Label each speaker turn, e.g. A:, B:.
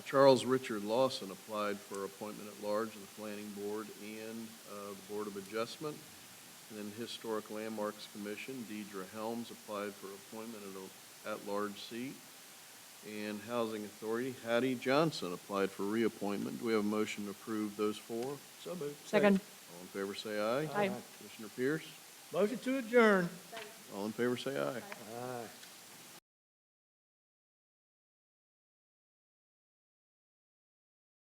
A: Charles Richard Lawson applied for appointment at large to the Planning Board and uh, the Board of Adjustment. And then Historic Landmarks Commission, Deidre Helms applied for appointment at a at-large seat. And Housing Authority, Hattie Johnson applied for reappointment. Do we have a motion to approve those four?
B: So moved.
C: Second.
A: All in favor, say aye.
C: Aye.
A: Commissioner Pierce,
B: Motion to adjourn.
A: all in favor, say aye.
B: Aye.